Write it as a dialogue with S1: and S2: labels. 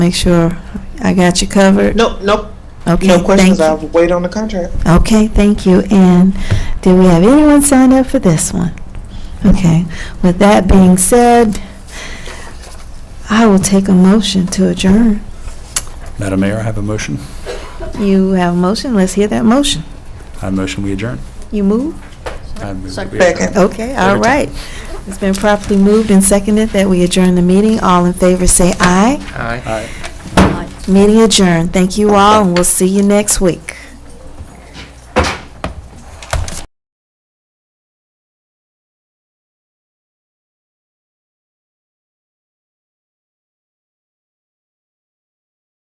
S1: Make sure I got you covered.
S2: No, no,
S1: Okay,
S2: no questions.
S1: thank
S2: I'll wait on the contract.
S1: you. Okay, thank you. And do we have anyone signed up for this one? Okay, with that being said, I will take a motion to adjourn.
S3: Madam Mayor, I have a motion.
S1: You have a motion, let's hear that motion.
S3: I motion we adjourn.
S1: You move?
S3: I move that we adjourn.
S2: Second.
S1: Okay, all
S3: Every time.
S1: right. It's been properly moved and seconded that we adjourn the meeting. All in favor, say aye.
S3: Aye.
S1: Meeting adjourned. Thank you all, and we'll see you next week.